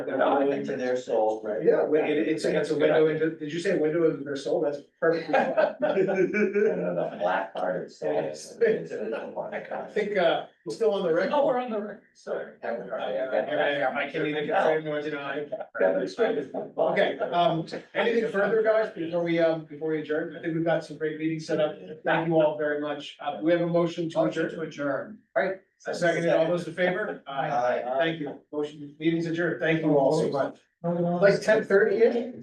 A window into their soul, right? Yeah, wi- it, it's, it's a window into, did you say window into their soul? That's perfectly. fine. And The black part of soul. Yes. I think, uh, we're still on the record. Oh, we're on the record, sorry. Oh, Yeah, yeah, yeah, I can't even confirm nor deny. Okay, um, anything further, guys, before we, um, before we adjourn? I think we've got some great meetings set up. Thank you all very much. Uh, we have a motion to Motion adjourn. to adjourn. A second, all those in favor? Aye. Thank you. Motion, meetings adjourned. Thank you all so much. Like ten thirty-ish?